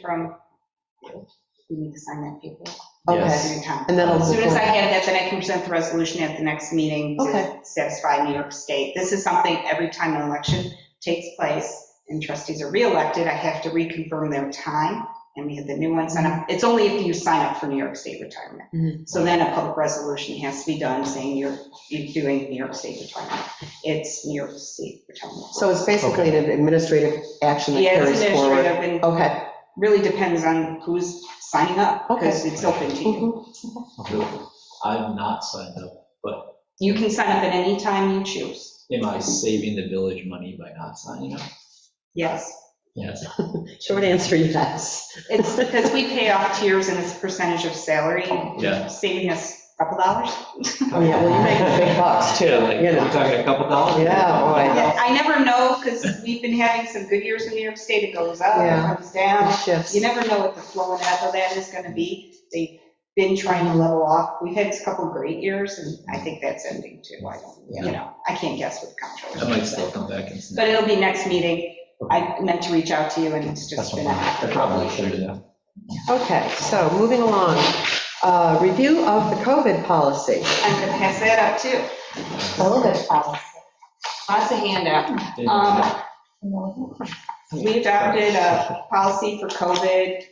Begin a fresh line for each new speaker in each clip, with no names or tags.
from you. You need to sign that paper.
Okay,
It's in your town.
and then I'll
As
move
soon as I
forward.
have that, then I can present the resolution at the next meeting
Okay.
to satisfy New York State. This is something every time an election takes place and trustees are reelected, I have to reconfirm their time and we have the new ones sign up. It's only if you sign up for New York State
Mhm.
retirement. So then a public resolution has to be done saying you're, you're doing New York State retirement. It's New York State retirement.
So it's basically an administrative action that
Yeah, it's
carries forward.
administrative and
Okay.
really depends on who's signing up because it's open to you.
Mhm.
I'm not signed up.
You can sign up at any time you choose.
Am I saving the village money by not signing up?
Yes.
Yes.
Short answer, yes.
It's because we pay off tiers and it's percentage of salary,
Yeah.
saving us a couple dollars.
Oh, yeah, well, you make big bucks too,
Yeah, like,
you
we're
know.
talking a couple dollars?
Yeah, boy.
Yeah, I never know because we've been having some good years in New York State. It goes up,
Yeah.
it comes down.
It shifts.
Um, You never know what the flow and ebb of that is going to be. They've been trying to level off. We've had a couple great years and I think that's ending too. I don't, you know, I can't guess with
I
comptroller.
might still come back and.
But it'll be next meeting. I meant to reach out to you and it's just been.
I probably should have.
Okay, so moving along, Uh, review of the COVID policy.
I'm going to pass that up too.
Okay.
Lots of handout.
Didn't-
Um, We adopted a policy for COVID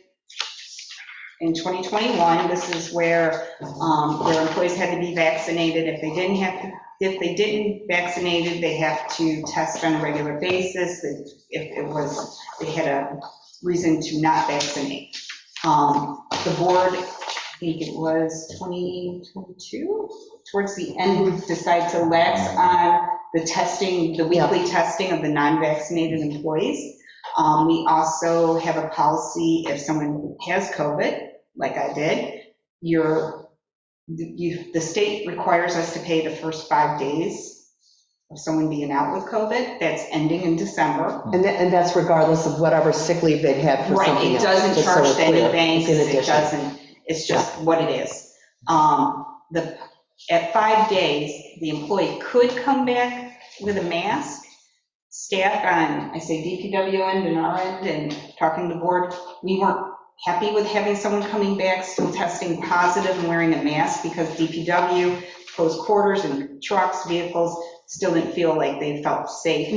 in 2021. This is where um, where employees had to be vaccinated. If they didn't have, to- if they didn't vaccinated, they have to test on a regular basis. If if it was, they had a reason to not vaccinate. Um, The board, I think it was 2022, towards the end, decided to lax on the testing, the weekly testing of the non-vaccinated employees. Um, We also have a policy, if someone has COVID, like I did, you're, you, the state requires us to pay the first five days of someone being out with COVID. That's ending in December.
And that, and that's regardless of whatever sick leave they'd had for
Right,
something
it
else.
doesn't
just so we're
charge to any
clear.
banks,
It's in
it
addition.
doesn't, it's just what it is. Um, The, at five days, the employee could come back with a mask. Staff on, I say DPW end and our end, and talking to the board, we weren't happy with having someone coming back still testing positive and wearing a mask because DPW, closed quarters and trucks, vehicles, still didn't feel like they felt safe.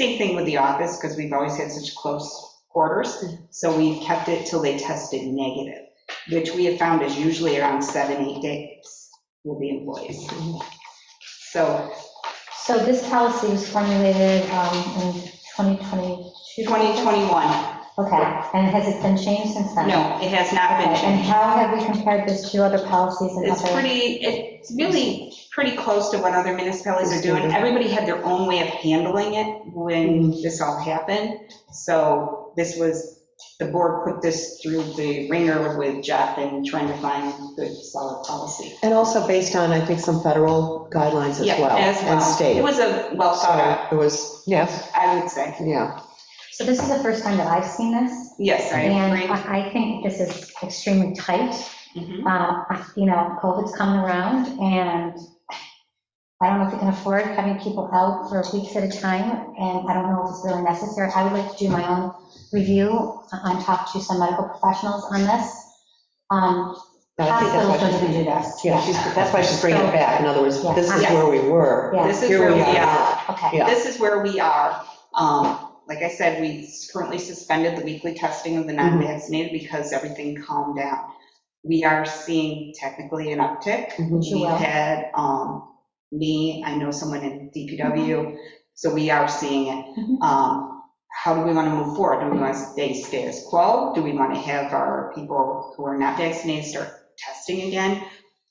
Same thing with the office, because we've always had such close quarters, so we've kept it till they tested negative, which we have found is usually around seven, eight days with the employees. So
So this policy was formulated um, in 2022?
2021,
Okay, and has it been changed since then?
no, it has not been
Okay, And
changed.
how have we compared this to other policies and
It's
other?
pretty, it's really pretty close to what other municipalities are doing.
Mm-hmm.
Everybody had their own way of handling it when this all happened. So this was, the board put this through the ringer with Jeff and trying to find good, solid policy.
And also based on, I think, some federal guidelines as
Yeah,
well.
as well.
And state.
It was a well thought out,
So It was, yes,
I would say.
yeah.
So this is the first time that I've seen this,
Yes, I
and
agree.
I I think this is extremely tight.
Mhm.
Uh, I- You know, COVID's coming around, and I don't know if we can afford having people out for weeks at a time, and I don't know if it's really necessary. I would like to do my own review and talk to some medical professionals on this. Um,
I think that's why
Hospitals
she's-
doesn't do this.
Yeah, she's, that's why she's bringing it back. In other words, this is
Yeah.
where we were.
Yeah.
This is
Here
where
we
we
are.
are.
Okay,
Yeah.
This is where we are. Um, Like I said, we currently suspended the weekly testing of the
Mm-hmm.
non-vaccinated because everything calmed down. We are seeing technically an uptick.
Mhm.
Sure.
We had um, me, I know someone in DPW, so we are seeing it.
Mhm.
Um, How do we want to move forward? Do we want to stay status quo? Do we want to have our people who are not vaccinated start testing again?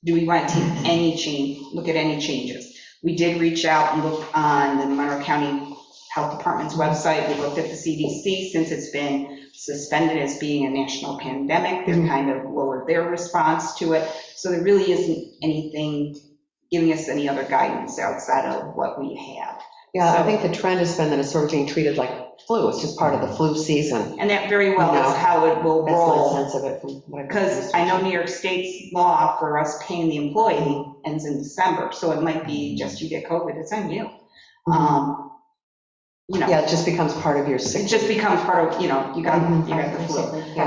Do we want to take any change, look at any changes? We did reach out and look on the Monroe County Health Department's website. We looked at the CDC, since it's been suspended as being a national pandemic, they're
Mhm.
kind of lowered their response to it. So there really isn't anything giving us any other guidance outside of what we have.
Yeah, I
So-
think the trend has been that it's sort of being treated like flu. It's just part of the flu season.
And that very well is
No.
how it will
That's my
roll.
sense of it from what I've.
Because I know New York State's law for us paying the employee ends in December, so it might be just you get COVID, it's on you. Um, You know,
Mm-hmm. Yeah, it just becomes part of your sick. Mm-hmm.
it just becomes part of, you know, you got, you got the flu.
basically, yeah.